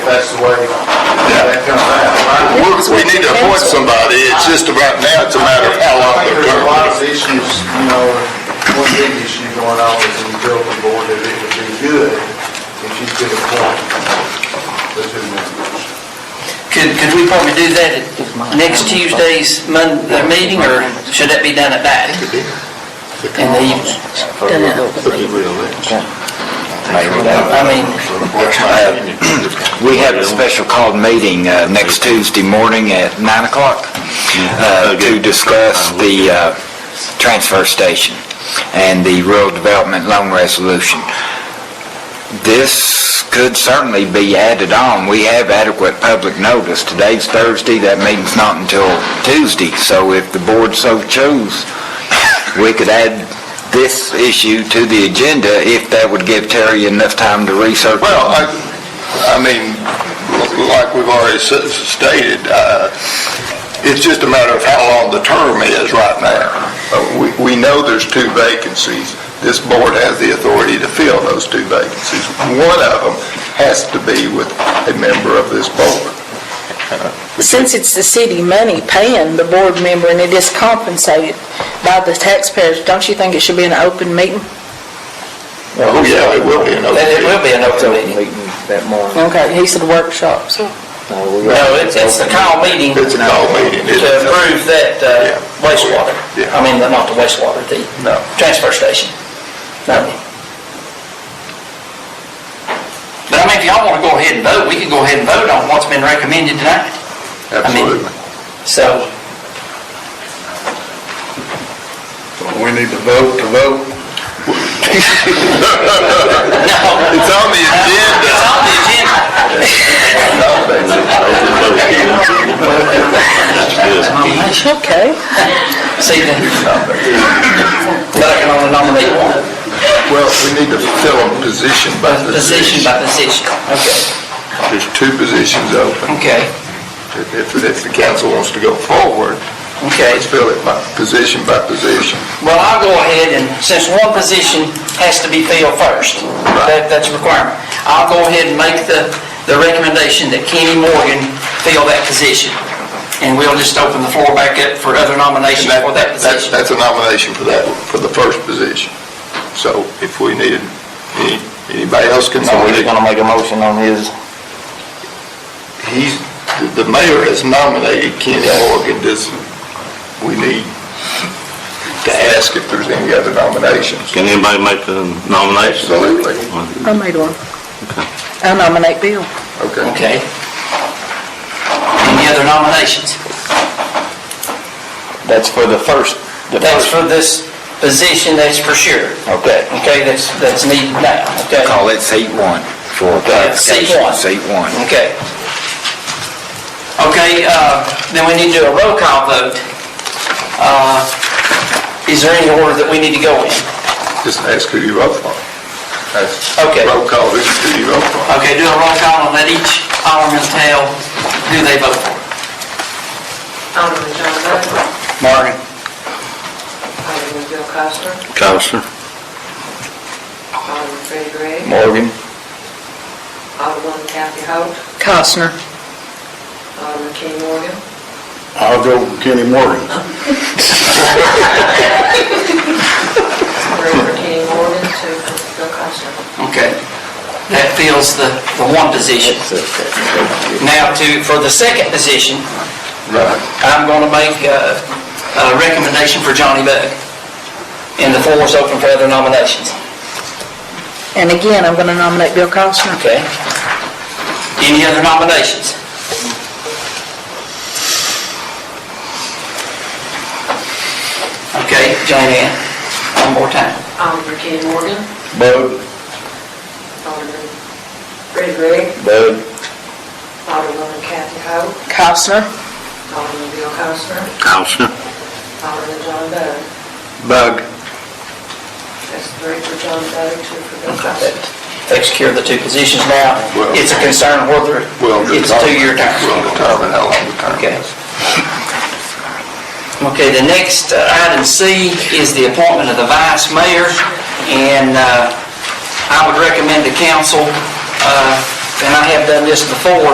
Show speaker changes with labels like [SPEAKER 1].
[SPEAKER 1] that's the way that comes out.
[SPEAKER 2] We, we need to appoint somebody, it's just about now, it's a matter of how long
[SPEAKER 1] I think
[SPEAKER 2] they're
[SPEAKER 1] there's a lot
[SPEAKER 2] going.
[SPEAKER 1] of issues, you know, one big issue going on is the utility board, that it would be good if you could appoint the two members.
[SPEAKER 3] Could, could we probably do that at next Tuesday's Mon, their meeting, or should that be done at that? In the evening? I mean,
[SPEAKER 4] Uh, We have a special called meeting uh, next Tuesday morning at 9 o'clock uh, to discuss the uh, transfer station and the rural development loan resolution. This could certainly be added on. We have adequate public notice. Today's Thursday, that meeting's not until Tuesday, so if the board so chose, we could add this issue to the agenda if that would give Terry enough time to research. it.
[SPEAKER 2] Well, I, I mean, like we've already s- stated, uh, it's just a matter of how long the term is right now. Uh, We, we know there's two vacancies. This board has the authority to fill those two vacancies. One of them has to be with a member of this board.
[SPEAKER 5] Since it's the city money paying the board member and it is compensated by the taxpayers, don't you think it should be an open meeting?
[SPEAKER 2] Oh, yeah, it will be an open
[SPEAKER 3] then it
[SPEAKER 2] meeting.
[SPEAKER 3] will be an open meeting.
[SPEAKER 4] that morning.
[SPEAKER 5] Okay, he said workshops.
[SPEAKER 3] No, it's, it's the call meeting to
[SPEAKER 2] It's a call meeting. It's-
[SPEAKER 3] approve that uh,
[SPEAKER 2] Yeah.
[SPEAKER 3] wastewater.
[SPEAKER 2] Yeah.
[SPEAKER 3] I mean, not the wastewater, the
[SPEAKER 2] No.
[SPEAKER 3] transfer station. No. But I mean, if y'all wanna go ahead and vote, we can go ahead and vote on what's been recommended tonight. I mean,
[SPEAKER 2] Absolutely.
[SPEAKER 3] So,
[SPEAKER 1] We need to vote to vote.
[SPEAKER 3] no,
[SPEAKER 2] It's on the agenda.
[SPEAKER 3] it's on the agenda.
[SPEAKER 5] Okay.
[SPEAKER 3] See, then, but I can only nominate one,
[SPEAKER 2] Well, we need to fill a position by position.
[SPEAKER 3] position by position. Okay.
[SPEAKER 2] There's two positions open.
[SPEAKER 3] Okay,
[SPEAKER 2] If, if the council wants to go forward,
[SPEAKER 3] okay.
[SPEAKER 2] let's fill it by, position by position.
[SPEAKER 3] Well, I'll go ahead and, since one position has to be filled first, that, that's a requirement. I'll go ahead and make the, the recommendation that Kenny Morgan fill that position. And we'll just open the floor back up for other nominations
[SPEAKER 2] And that-
[SPEAKER 3] for that
[SPEAKER 2] that's-
[SPEAKER 3] position.
[SPEAKER 2] That's a nomination for that, for the first position. So if we needed, any- anybody else can nominate.
[SPEAKER 4] make a motion on his?
[SPEAKER 2] He's, the- the mayor has nominated Kenny Morgan, does, we need to ask if there's any other nominations.
[SPEAKER 6] Can anybody make a nomination?
[SPEAKER 2] Absolutely.
[SPEAKER 5] I made one. I nominate Bill.
[SPEAKER 2] Okay.
[SPEAKER 3] Okay. Any other nominations?
[SPEAKER 4] That's for the first.
[SPEAKER 3] That's for this position, that's for sure.
[SPEAKER 4] Okay.
[SPEAKER 3] Okay, that's, that's needed now, okay?
[SPEAKER 4] Call it seat one for
[SPEAKER 3] Okay, seat
[SPEAKER 4] clarification.
[SPEAKER 3] one.
[SPEAKER 4] Seat one.
[SPEAKER 3] Okay. Okay, uh, then we need to do a roll call vote. Uh, Is there any order that we need to go in?
[SPEAKER 2] Just ask who you vote for. That's-
[SPEAKER 3] Okay.
[SPEAKER 2] Roll call, who who you vote for.
[SPEAKER 3] Okay, do a roll call and let each alderman tell who they vote for.
[SPEAKER 7] Alderman John Bud,
[SPEAKER 3] Morgan.
[SPEAKER 7] Alderman Bill Coster,
[SPEAKER 6] Counselor?
[SPEAKER 7] Alderman Freddie Gray,
[SPEAKER 4] Morgan.
[SPEAKER 7] Alderman Kathy Hope,
[SPEAKER 5] Costner.
[SPEAKER 7] Alderman Kenny Morgan,
[SPEAKER 1] I'll go Kenny Morgan.
[SPEAKER 7] three for Kenny Morgan, two for Bill Coster.
[SPEAKER 3] Okay. That fills the, the one position. Now to, for the second position,
[SPEAKER 2] Right.
[SPEAKER 3] I'm going to make uh, a recommendation for Johnny Bug. And the floor is open for other nominations.
[SPEAKER 5] And again, I'm going to nominate Bill Costner.
[SPEAKER 3] Okay. Any other nominations? Okay, Joanne, one more time.
[SPEAKER 7] Alderman Kenny Morgan,
[SPEAKER 4] Bud.
[SPEAKER 7] Alderman Freddie Gray,
[SPEAKER 4] Bud.
[SPEAKER 7] Alderman Kathy Hope,
[SPEAKER 5] Costner.
[SPEAKER 7] Alderman Bill Coster,
[SPEAKER 6] Counselor?
[SPEAKER 7] Alderman John Bud.
[SPEAKER 2] Bug.
[SPEAKER 7] That's three for John Bud, two for Bill Coster.
[SPEAKER 3] Takes care of the two positions now.
[SPEAKER 2] Well-
[SPEAKER 3] It's a concern whether
[SPEAKER 2] Well,
[SPEAKER 3] it's a two-year term.
[SPEAKER 2] We'll determine how long the term
[SPEAKER 3] Okay.
[SPEAKER 2] is.
[SPEAKER 3] Okay, the next uh, item C is the appointment of the vice mayor, and uh, I would recommend the council, uh, and I have done this before,